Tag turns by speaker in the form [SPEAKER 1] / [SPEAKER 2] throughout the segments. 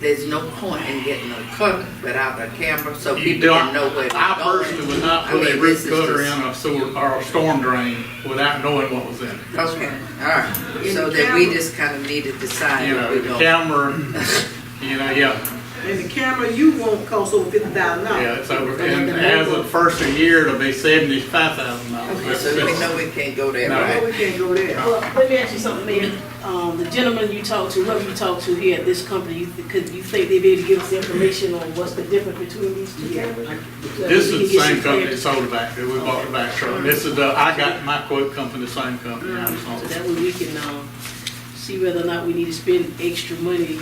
[SPEAKER 1] There's no point in getting a cover without a camera so
[SPEAKER 2] You
[SPEAKER 1] people
[SPEAKER 2] don't,
[SPEAKER 1] can know where
[SPEAKER 2] I personally would not put a roof cover in a sewer, or a storm drain without knowing what was in it.
[SPEAKER 1] Okay, all right. So that we just kind of need to decide
[SPEAKER 2] You
[SPEAKER 1] what
[SPEAKER 2] know,
[SPEAKER 1] we're
[SPEAKER 2] the
[SPEAKER 1] going.
[SPEAKER 2] camera, you know, yeah,
[SPEAKER 3] And the camera you want costs over fifty thousand dollars.
[SPEAKER 2] yeah, it's over, and as of first of year, it'll be seventy-five thousand
[SPEAKER 1] Okay, so we
[SPEAKER 2] dollars.
[SPEAKER 1] know we can't go there,
[SPEAKER 2] No.
[SPEAKER 3] No,
[SPEAKER 1] right?
[SPEAKER 3] we can't go there.
[SPEAKER 4] Well, let me ask you something, Mayor. Um, the gentleman you talked to, whoever you talked to here at this company, you, th- could you think they'd be able to give us information on what's the difference between these two cameras? So
[SPEAKER 2] This
[SPEAKER 4] we can
[SPEAKER 2] is the
[SPEAKER 4] get
[SPEAKER 2] same company that
[SPEAKER 4] some clarity.
[SPEAKER 2] sold it back, that we bought the back truck. This is the, I got my quote come from the same company. I just
[SPEAKER 4] So
[SPEAKER 2] don't-
[SPEAKER 4] that way we can, um, see whether or not we need to spend extra money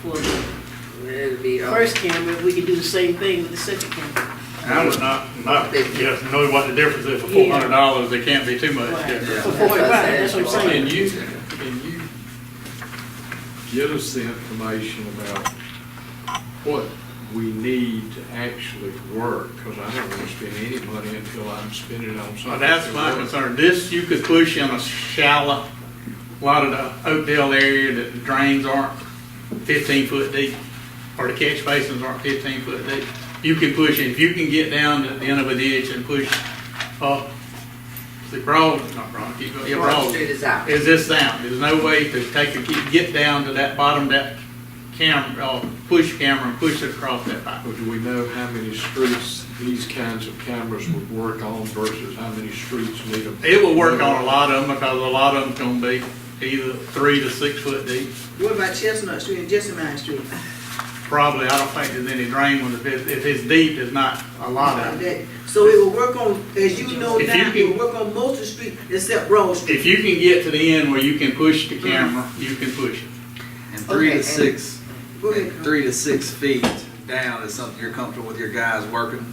[SPEAKER 4] for the
[SPEAKER 1] It'll be, uh,
[SPEAKER 4] first camera, if we can do the same thing with the second camera.
[SPEAKER 2] I would not, not, yes, know what the difference is for
[SPEAKER 4] Yeah.
[SPEAKER 2] four hundred dollars, it can't be too much
[SPEAKER 4] Right.
[SPEAKER 2] difference.
[SPEAKER 4] For forty, right, that's what I'm saying.
[SPEAKER 2] Can you, can you
[SPEAKER 5] get us the information about what we need to actually work, because I don't want to spend any money until I'm spending it on something.
[SPEAKER 2] Well, that's my
[SPEAKER 5] that works.
[SPEAKER 2] concern. This, you could push in a shallow, a lot of the Oakdale area that the drains aren't fifteen foot deep, or the catch basins aren't fifteen foot deep. You can push, it. if you can get down to the end of a ditch and push up, the broad, not broad, keep going, yeah,
[SPEAKER 1] Broad
[SPEAKER 2] broad.
[SPEAKER 1] Street is out.
[SPEAKER 2] Is this down? There's no way to take a, keep- get down to that bottom, of that camera, or push camera and push it across that pipe.
[SPEAKER 5] Or do we know how many streets these kinds of cameras would work on versus how many streets need them?
[SPEAKER 2] It will work on a lot of them, because a lot of them's gonna be either three to six foot deep.
[SPEAKER 3] What about Chestnut Street and Jessamine Street?
[SPEAKER 2] Probably, I don't think there's any drain ones, if it's, if it's deep, there's not a lot of it.
[SPEAKER 3] That- So it will work on, as you know
[SPEAKER 2] If you
[SPEAKER 3] now, it
[SPEAKER 2] can-
[SPEAKER 3] will work on most of the street except Broad Street.
[SPEAKER 2] If you can get to the end where you can push the camera, you can push it.
[SPEAKER 6] And
[SPEAKER 1] Okay,
[SPEAKER 6] three to
[SPEAKER 1] and-
[SPEAKER 6] six,
[SPEAKER 3] Go ahead.
[SPEAKER 6] three to six feet down is something you're comfortable with your guys working?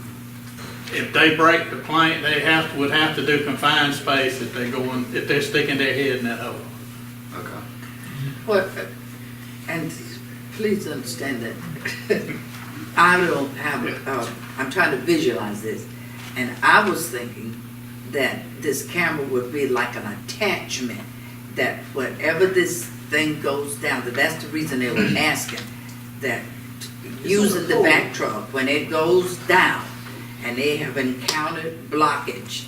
[SPEAKER 2] If they break the plank, they have, would have to do confined space if they're going, if they're sticking their head in that hole.
[SPEAKER 6] Okay.
[SPEAKER 1] What, and please understand that I don't have, uh, I'm trying to visualize this. And I was thinking that this camera would be like an attachment, that whatever this thing goes down, that that's the reason they were asking, that using the back truck, when it goes down and they have encountered blockage,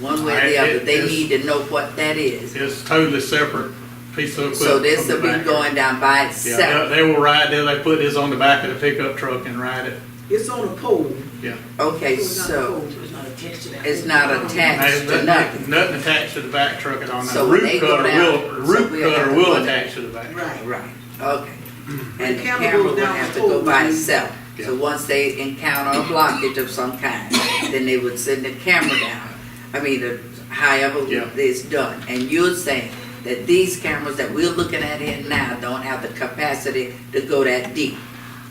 [SPEAKER 1] one way or the other, they need to know what that is.
[SPEAKER 2] It's totally separate piece of equipment.
[SPEAKER 1] So this will
[SPEAKER 2] from the
[SPEAKER 1] be
[SPEAKER 2] back.
[SPEAKER 1] going down by
[SPEAKER 2] Yeah,
[SPEAKER 1] itself.
[SPEAKER 2] they they will ride, they, they put this on the back of the pickup truck and ride it,
[SPEAKER 3] It's on a pole.
[SPEAKER 2] yeah.
[SPEAKER 1] Okay,
[SPEAKER 3] It's not
[SPEAKER 1] so
[SPEAKER 3] cold.
[SPEAKER 4] So it's not attached to that.
[SPEAKER 1] it's not attached to nothing.
[SPEAKER 2] There's nothing, nothing attached to the back truck at all. Now,
[SPEAKER 1] So they
[SPEAKER 2] root
[SPEAKER 1] go
[SPEAKER 2] cutter
[SPEAKER 1] down,
[SPEAKER 2] will,
[SPEAKER 1] so
[SPEAKER 2] root
[SPEAKER 1] we'll have
[SPEAKER 2] cutter
[SPEAKER 1] to
[SPEAKER 2] will
[SPEAKER 1] put it-
[SPEAKER 2] attach to the back.
[SPEAKER 3] Right.
[SPEAKER 1] Right, okay. And the
[SPEAKER 3] camera
[SPEAKER 1] camera
[SPEAKER 3] goes
[SPEAKER 1] would
[SPEAKER 3] down
[SPEAKER 1] have to
[SPEAKER 3] the
[SPEAKER 1] go
[SPEAKER 3] pole,
[SPEAKER 1] by
[SPEAKER 3] right?
[SPEAKER 1] itself. So
[SPEAKER 2] Yeah.
[SPEAKER 1] once they encounter a blockage of some kind, then they would send the camera down. I mean, uh, however
[SPEAKER 2] Yeah.
[SPEAKER 1] it's done. And you're saying that these cameras that we're looking at here now don't have the capacity to go that deep.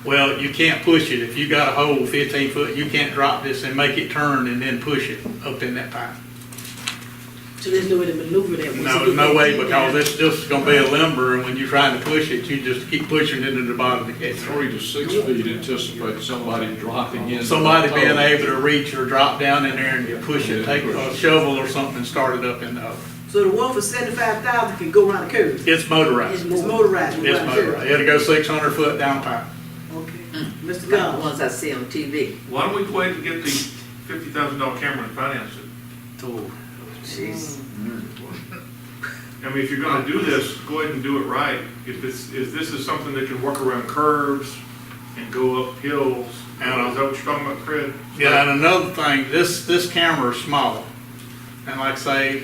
[SPEAKER 2] Well, you can't push it. If you got a hole fifteen foot, you can't drop this and make it turn and then push it up in that pipe.
[SPEAKER 4] So there's no way to maneuver that. once it
[SPEAKER 2] No,
[SPEAKER 4] get
[SPEAKER 2] no
[SPEAKER 4] that
[SPEAKER 2] way,
[SPEAKER 4] deep
[SPEAKER 2] because
[SPEAKER 4] down.
[SPEAKER 2] it's just gonna be a limber, and when you're trying to push it, you just keep pushing it into the bottom of the catch.
[SPEAKER 5] Three to six feet anticipate somebody dropping in.
[SPEAKER 2] Somebody being able to reach or drop down in there and you push it, take a shovel or something and start it up in the hole.
[SPEAKER 3] So the one for seventy-five thousand can go around the curve.
[SPEAKER 2] It's
[SPEAKER 4] It's
[SPEAKER 2] motorized.
[SPEAKER 3] It's motorized. go
[SPEAKER 2] It's
[SPEAKER 3] around the curve.
[SPEAKER 2] motorized. It'll go six hundred foot down pipe.
[SPEAKER 3] Okay.
[SPEAKER 1] Mm.
[SPEAKER 3] Mr.
[SPEAKER 1] Like the
[SPEAKER 3] Goff.
[SPEAKER 1] ones I see on TV.
[SPEAKER 7] Why don't we go ahead and get the fifty thousand dollar camera and finance it?
[SPEAKER 1] Jeez.
[SPEAKER 7] I mean, if you're gonna do this, go ahead and do it right. If it's, if this is something that can work around curves and go up hills, and is that what you're talking about, Fred?
[SPEAKER 2] Yeah, and another thing, this, this camera is small. And like I say,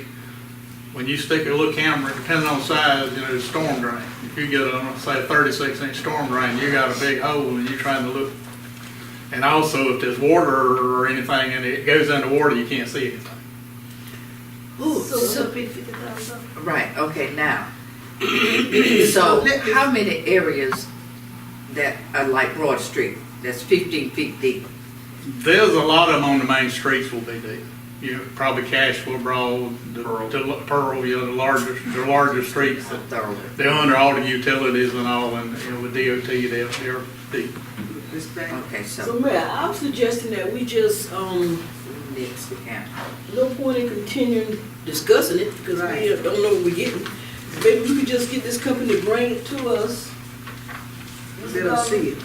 [SPEAKER 2] when you stick a little camera, depending on size, you know, storm drain. If you get a, say, a thirty-six inch storm drain, you got a big hole and you're trying to look. And also, if there's water or anything and it goes underwater, you can't see anything.
[SPEAKER 4] Ooh,
[SPEAKER 8] So
[SPEAKER 4] so-
[SPEAKER 8] it's a big fifty thousand.
[SPEAKER 1] Right, okay, now. So, how many areas that are like Broad Street, that's fifteen feet deep?
[SPEAKER 2] There's a lot of them on the main streets will be deep. You know, probably Cashville Broad, the, the Pearl, you know, the larger, the larger streets that
[SPEAKER 1] Thoroughly.
[SPEAKER 2] They're under all the utilities and all, and, you know, with DOT, they're, they're deep.
[SPEAKER 3] Ms. Banks.
[SPEAKER 1] Okay,
[SPEAKER 4] So,
[SPEAKER 1] so,
[SPEAKER 4] Mayor, I'm suggesting that we just, um,
[SPEAKER 1] next we can.
[SPEAKER 4] no point in continuing discussing it, because we
[SPEAKER 3] Right.
[SPEAKER 4] don't know what we're getting. Maybe we could just get this company to bring it to us.
[SPEAKER 3] They don't see it.